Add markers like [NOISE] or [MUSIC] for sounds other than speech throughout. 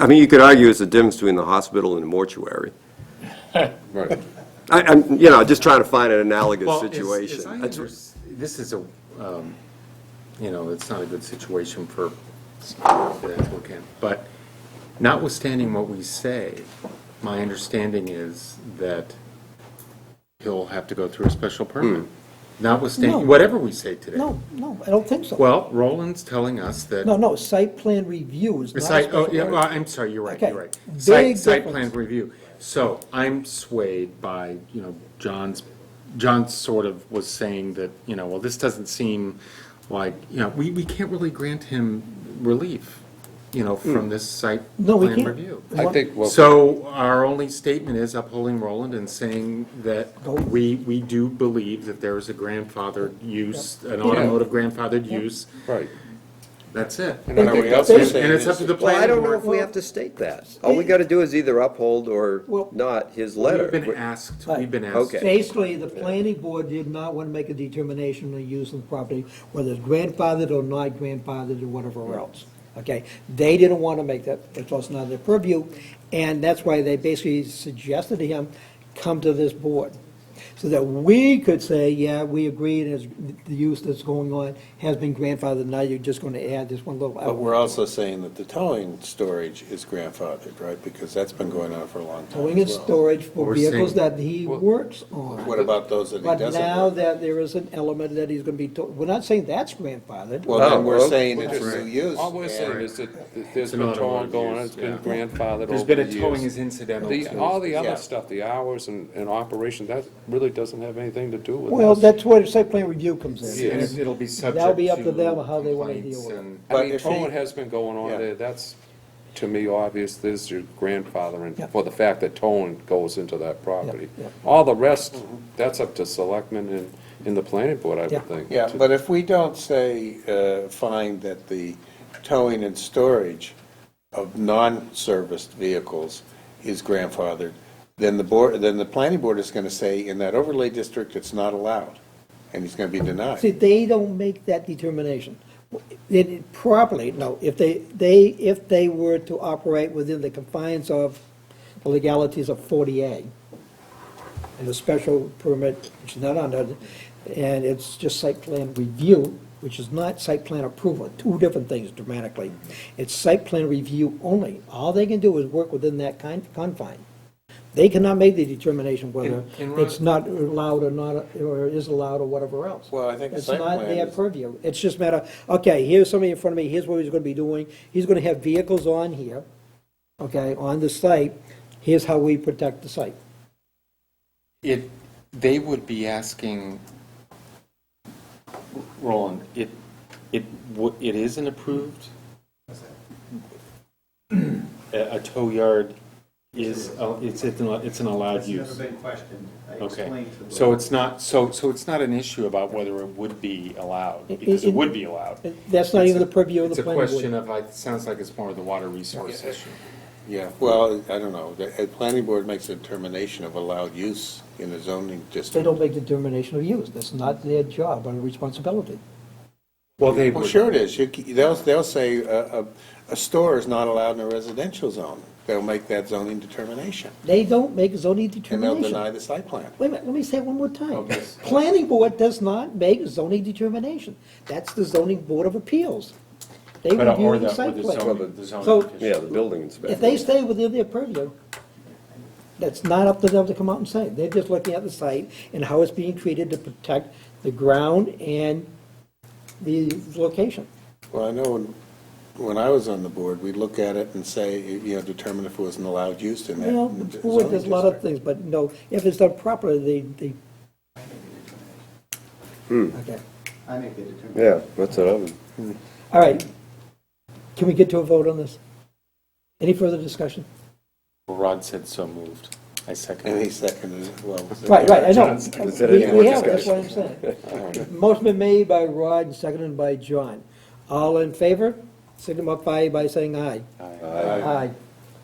I mean, you could argue it's the difference between the hospital and the mortuary. Right. I, I'm, you know, just trying to find an analogous Well, as- as situation. I That's- unders- This is a, um, you know, it's not a good situation for the applicant, but notwithstanding what we say, my understanding is that he'll have to go through a special permit, notwithstanding, Hmm. No. whatever we say today. No, no, I don't think so. Well, Roland's telling us that. No, no, site plan review is The not a site, oh, special yeah, permit. well, I'm sorry, you're right, Okay, you're right. Site, big site plan difference. review. So I'm swayed by, you know, John's, John sort of was saying that, you know, well, this doesn't seem like, you know, we, we can't really grant him relief, you know, from this site No, we plan can't. review. I think, well, So our only statement is upholding Roland and saying that Go. we, we do believe that there is a grandfathered use, an automotive grandfathered use. right. That's it. And everybody else And is saying And it's up this to is- the Well, planning I board. don't know if we have to state that. All we gotta do is either uphold or Well- not his We've been letter. asked, we've been asked. Okay. Basically, the planning board did not want to make a determination on using the property, whether it's grandfathered or not grandfathered or whatever else. Okay, they didn't want to make that, that's also not their purview, and that's why they basically suggested to him, come to this board. So that we could say, yeah, we agree, and it's- the use that's going on has been grandfathered, now you're just going to add this one little. But we're also saying that the towing storage is grandfathered, right? Because that's been going on for a long time Towing and as well. storage for We're vehicles saying- that he works on. What about those that he But now doesn't? work? that there is an element that he's gonna be, to- we're not saying that's grandfathered. Well, Oh, then we're well, saying it's new use. All we're saying and- is that th- there's an been towing automotive going on, use, it's been yeah. grandfathered There's over been the a towing years. is incidental The, all the Yeah. other stuff, the hours and, and operation, that really doesn't have anything to do with us. Well, that's where the site plan review comes in. And it'll be subject That'll be up to to them how they wanna deal complaints with it. and- I But mean, if he- towing has been going on Yeah. there, that's, to me, obvious, there's your Yeah. grandfathering, for the fact that towing goes into that property. yeah. All the rest, Mm-hmm. that's up to selectmen and, and the planning board, I Yeah. would think. Yeah, to- but if we don't say, uh, find that the towing and storage of non-serviced vehicles is grandfathered, then the board, then the planning board is going to say, in that overlay district, it's not allowed, and he's going to be See, denied. they don't make that determination. It properly, no, if they, they, if they were to operate within the confines of the legalities of 40A, and the special permit, which is not under, and it's just site plan review, which is not site plan approval, two different things dramatically. It's site plan review only. All they can do is work within that kind, confine. They cannot make the determination whether And- and Ron- it's not allowed or not, or is allowed or whatever else. Well, I think the It's site not plan their is- purview. It's just matter, okay, here's somebody in front of me, here's what he's gonna be doing, he's gonna have vehicles on here, okay, on the site, here's how we protect the site. It, they would be asking, Roland, it, it, wo- it is an approved? A, a tow yard is, a- it's, it's an it's an allowed use. It's never been questioned. I Okay, explained to them. so it's not, so, so it's not an issue about whether it would be allowed, because it- it would be allowed. That's not even the purview of the planning board. It's a question of, it sounds like it's more of the water resource issue. Yeah, well, I don't know, the, the planning board makes a determination of allowed use in the zoning They district. don't make determination of use, that's not their job or responsibility. Well, they Well, sure it is, you, c- they'll, they'll say, uh, a, a store is not allowed in a residential zone, they'll make that zoning determination, They don't make zoning and they'll deny determination. the Oh, site plan. Wait a minute, let me say it one more time. Okay. Planning board does not make zoning determination, that's the zoning board of appeals. They But, uh, or review the, or the site the plan. zoning, the zoning So- issue. Yeah, the building If inspector. they stay within their purview, that's not up to them to come out and say, they're just looking at the site and how it's being treated to protect the ground and the location. Well, I know when, when I was on the board, we'd look at it and say, you know, determine if it was an allowed use in that Well, zoning the board does a lot of district. things, but no, if it's done properly, they, they. Okay, I make the determination. Yeah, that's what I'm. all right. Can we get to a vote on this? Any further discussion? Rod said so moved. I second And he it. seconded it, well. Right, right, I know. John's- We- Is there any more We have, that's what I'm saying. Motion been made by Rod and seconded by John. All in favor, signify by saying aye. Aye. Aye.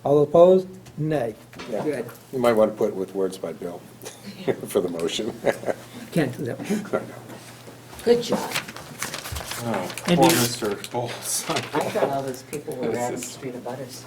All opposed? Nay. Yeah. Good. You might want to put with words by Bill [LAUGHS] for the motion. Can't do that. Good job. Oh, And Poor he- Mr. Bowles. I thought all those people were out in the street of butters.